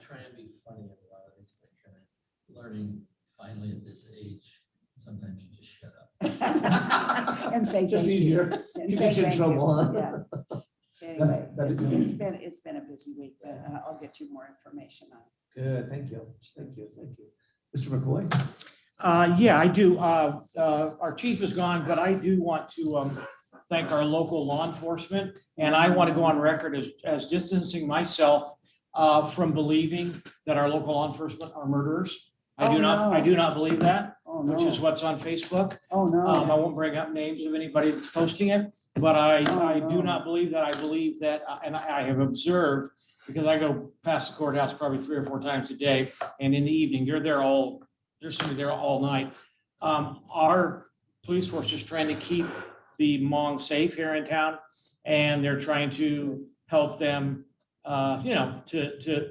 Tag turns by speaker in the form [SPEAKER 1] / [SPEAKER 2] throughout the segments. [SPEAKER 1] try and be funny at a lot of these things, and I'm learning finally at this age, sometimes you just shut up.
[SPEAKER 2] And say. thank
[SPEAKER 3] Just
[SPEAKER 2] you.
[SPEAKER 3] easier.
[SPEAKER 2] And
[SPEAKER 3] Keeps
[SPEAKER 2] say
[SPEAKER 3] us in
[SPEAKER 2] thank you.
[SPEAKER 3] trouble, huh?
[SPEAKER 2] Yeah. Anyway,
[SPEAKER 3] that is-
[SPEAKER 2] It's been, it's been a busy week, but uh, I'll get you more information on. it.
[SPEAKER 3] Good, thank you, thank you, thank you. Mr. McCoy?
[SPEAKER 4] Uh, yeah, I do. Uh, uh, our chief is gone, but I do want to, um, thank our local law enforcement. And I want to go on record as, as distancing myself, uh, from believing that our local law enforcement are murderers. I
[SPEAKER 2] Oh,
[SPEAKER 4] do not, I
[SPEAKER 2] no.
[SPEAKER 4] do not believe that,
[SPEAKER 2] Oh,
[SPEAKER 4] which is
[SPEAKER 2] no.
[SPEAKER 4] what's on Facebook.
[SPEAKER 2] Oh,
[SPEAKER 4] Um, I
[SPEAKER 2] no.
[SPEAKER 4] won't bring up names of anybody that's posting it, but
[SPEAKER 2] Oh,
[SPEAKER 4] I, I do
[SPEAKER 2] no.
[SPEAKER 4] not believe that. I believe that, uh, and I I have observed, because I go past the courthouse probably three or four times a day, and in the evening, you're there all, there's somebody there all night. Um, our police force is trying to keep the Hmong safe here in town, and they're trying to help them, uh, you know, to, to,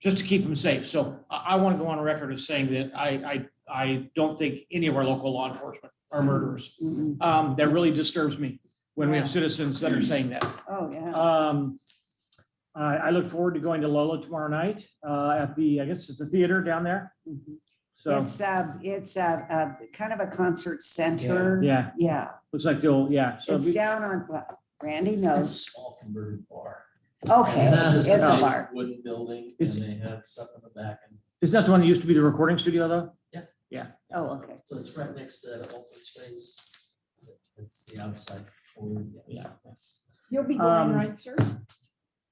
[SPEAKER 4] just to keep them safe. So I, I want to go on record as saying that I, I, I don't think any of our local law enforcement are murderers.
[SPEAKER 2] Mm-mm.
[SPEAKER 4] Um, that really disturbs me when we have
[SPEAKER 2] Yeah.
[SPEAKER 4] citizens that are saying that.
[SPEAKER 2] Oh, yeah.
[SPEAKER 4] Um, I, I look forward to going to Lola tomorrow night, uh, at the, I guess it's the theater down there.
[SPEAKER 2] Mhm.
[SPEAKER 4] So,
[SPEAKER 2] It's, uh, it's, uh, uh, kind of a concert center.
[SPEAKER 4] yeah,
[SPEAKER 2] Yeah,
[SPEAKER 4] looks like they'll, yeah. So
[SPEAKER 2] it's
[SPEAKER 4] be-
[SPEAKER 2] down on, well, Randy
[SPEAKER 1] It's a
[SPEAKER 2] knows.
[SPEAKER 1] small converted bar.
[SPEAKER 2] Okay,
[SPEAKER 1] And just
[SPEAKER 2] it's a
[SPEAKER 1] big
[SPEAKER 2] bar.
[SPEAKER 1] Wooden building, and
[SPEAKER 4] It's-
[SPEAKER 1] they have stuff in the back, and
[SPEAKER 4] Is that the one that used to be the recording studio though?
[SPEAKER 2] Oh, okay.
[SPEAKER 1] so it's right next to that open space. It's the outside corner.
[SPEAKER 4] Yeah.
[SPEAKER 2] You'll be
[SPEAKER 4] Um,
[SPEAKER 2] going, right, sir?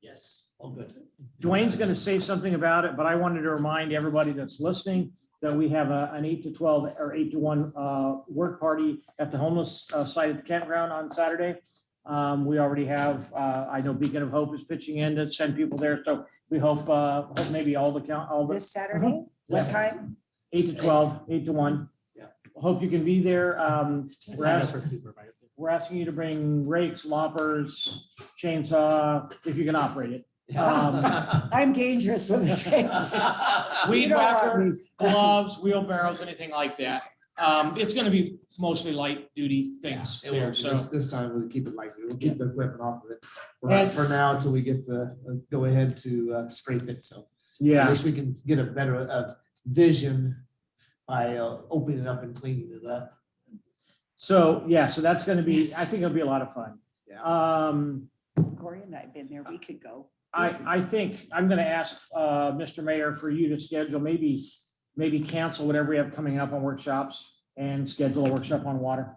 [SPEAKER 1] Yes, all good.
[SPEAKER 4] Dwayne's gonna say something about it, but I wanted to remind everybody that's listening that we have a, an eight to twelve or eight to one, uh, work party at the homeless uh, site at the campground on Saturday. Um, we already have, uh, I know Beacon of Hope is pitching in to send people there, so we hope, uh, hope maybe all the count, all the
[SPEAKER 2] This Saturday? What
[SPEAKER 4] Mm-hmm. Yeah.
[SPEAKER 2] time?
[SPEAKER 4] eight to twelve, eight to one.
[SPEAKER 3] Yeah.
[SPEAKER 4] Hope you can be there. Um, we're
[SPEAKER 3] Sign up
[SPEAKER 4] ask-
[SPEAKER 3] for supervisor.
[SPEAKER 4] we're asking you to bring rakes, loppers, chainsaw, if you can operate it. Um,
[SPEAKER 2] I'm dangerous with the kids. You
[SPEAKER 4] Weed
[SPEAKER 2] don't want
[SPEAKER 4] whacker,
[SPEAKER 2] me.
[SPEAKER 4] gloves, wheelbarrows, anything like that. Um, it's gonna be mostly light duty things
[SPEAKER 3] It will,
[SPEAKER 4] there, so.
[SPEAKER 3] this, this time we'll keep it like, we'll
[SPEAKER 4] Yeah.
[SPEAKER 3] keep the equipment off of it
[SPEAKER 4] And-
[SPEAKER 3] for- for now until we get the, uh, go ahead to uh, scrape it, so. At
[SPEAKER 4] Yeah,
[SPEAKER 3] least we can get a better, uh, vision by uh, opening it up and cleaning it up.
[SPEAKER 4] so, yeah, so that's gonna be, I
[SPEAKER 2] Yes.
[SPEAKER 4] think it'll be a lot of fun.
[SPEAKER 3] Yeah.
[SPEAKER 4] Um,
[SPEAKER 2] Corey and I have been there. We could go.
[SPEAKER 4] I, I think, I'm gonna ask, uh, Mr. Mayor for you to schedule, maybe, maybe cancel whatever we have coming up on workshops and schedule a workshop on water.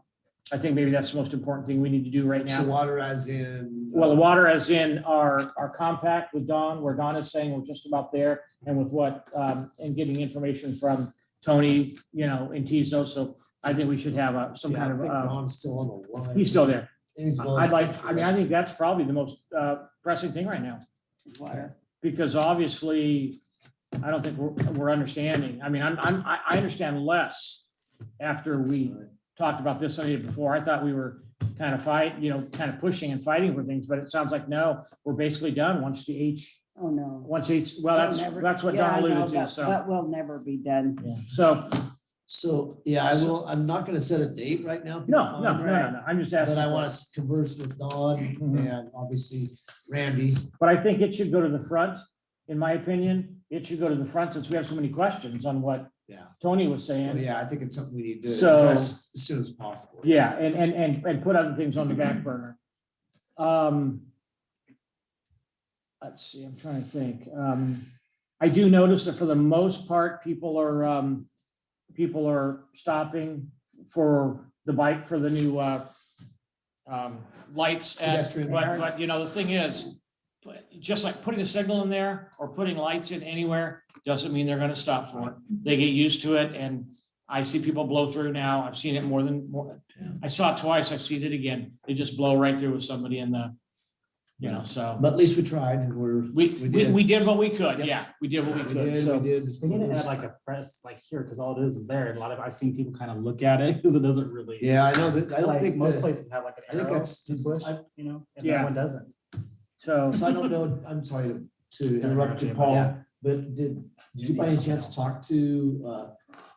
[SPEAKER 4] I think maybe that's the most important thing we need to do right
[SPEAKER 3] So
[SPEAKER 4] now.
[SPEAKER 3] water as in. uh,
[SPEAKER 4] Well, the water as in our, our compact with Don, where Don is saying we're just about there and with what, um, and getting information from Tony, you know, in Tizo. So I think we should have a, some
[SPEAKER 3] yeah, I
[SPEAKER 4] kind of,
[SPEAKER 3] think
[SPEAKER 4] uh,
[SPEAKER 3] Ron's still on the line.
[SPEAKER 4] he's still there.
[SPEAKER 3] He's on
[SPEAKER 4] I'd like, I
[SPEAKER 3] the-
[SPEAKER 4] mean, I think that's probably the most, uh, pressing thing right now.
[SPEAKER 2] Water.
[SPEAKER 4] Because obviously, I don't think we're, we're understanding. I mean, I'm, I'm, I, I understand less after we talked about this Sunday before. I thought we were kind of fight, you know, kind of pushing and fighting for things, but it sounds like no, we're basically done once the H,
[SPEAKER 2] Oh, no.
[SPEAKER 4] once each, well, that's,
[SPEAKER 2] They'll never-
[SPEAKER 4] that's what
[SPEAKER 2] Yeah, I
[SPEAKER 4] Don
[SPEAKER 2] know,
[SPEAKER 4] alluded to,
[SPEAKER 2] but-
[SPEAKER 4] so.
[SPEAKER 2] But we'll never be done.
[SPEAKER 4] So,
[SPEAKER 3] So, yeah, I will, I'm not gonna set a date right now.
[SPEAKER 4] no, no, no,
[SPEAKER 3] Um,
[SPEAKER 4] no, no, I'm just
[SPEAKER 3] But
[SPEAKER 4] asking.
[SPEAKER 3] I
[SPEAKER 4] for
[SPEAKER 3] want
[SPEAKER 4] it.
[SPEAKER 3] to converse with Don
[SPEAKER 4] Mhm.
[SPEAKER 3] and obviously Randy.
[SPEAKER 4] But I think it should go to the front, in my opinion. It should go to the front since we have so many questions on what
[SPEAKER 3] Yeah.
[SPEAKER 4] Tony was
[SPEAKER 3] Well,
[SPEAKER 4] saying.
[SPEAKER 3] yeah, I think it's something we need to
[SPEAKER 4] So-
[SPEAKER 3] address as soon as possible.
[SPEAKER 4] Yeah, and, and, and, and put other things on the back burner. Um. Let's see, I'm trying to think. Um, I do notice that for the most part, people are, um, people are stopping for the bike, for the new, uh, um, lights at
[SPEAKER 3] Pedestrian.
[SPEAKER 4] But, but you know, the thing is, but just like putting a signal in there or putting lights in anywhere, doesn't mean they're gonna stop for it. They get used to it and I see people blow through now. I've seen it more than, more,
[SPEAKER 3] Yeah.
[SPEAKER 4] I saw it twice. I've seen it again. They just blow right through with somebody in the, you know, so.
[SPEAKER 3] But at least we tried and we're.
[SPEAKER 4] We,
[SPEAKER 3] we
[SPEAKER 4] we,
[SPEAKER 3] did.
[SPEAKER 4] we did what we could.
[SPEAKER 3] Yep.
[SPEAKER 4] Yeah, we did what we
[SPEAKER 3] We
[SPEAKER 4] could.
[SPEAKER 3] did, we
[SPEAKER 4] So,
[SPEAKER 3] did.
[SPEAKER 5] They didn't add like a press like here, because all it is is there, and a lot of, I've seen people kind of look at it, because it doesn't really.
[SPEAKER 3] Yeah, I know that, I don't
[SPEAKER 5] like,
[SPEAKER 3] think
[SPEAKER 5] Most
[SPEAKER 3] that-
[SPEAKER 5] places have like
[SPEAKER 3] I
[SPEAKER 5] an
[SPEAKER 3] think
[SPEAKER 5] arrow
[SPEAKER 3] that's-
[SPEAKER 5] to push, you know, and
[SPEAKER 4] Yeah.
[SPEAKER 5] that one doesn't.
[SPEAKER 4] so
[SPEAKER 3] So I don't know, I'm sorry to- to interrupt you,
[SPEAKER 5] Yeah.
[SPEAKER 3] Paul, but did, did you by any chance talk to, uh,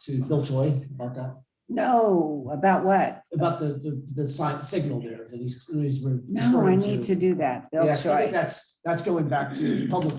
[SPEAKER 3] to Bill Choi, Mark out?
[SPEAKER 2] No, about what?
[SPEAKER 3] About the, the, the sign, signal there that he's, he's.
[SPEAKER 2] No, I
[SPEAKER 3] referring
[SPEAKER 2] need to do that. Bill
[SPEAKER 3] Yeah, 'cause I
[SPEAKER 2] Choi.
[SPEAKER 3] think that's, that's going back to public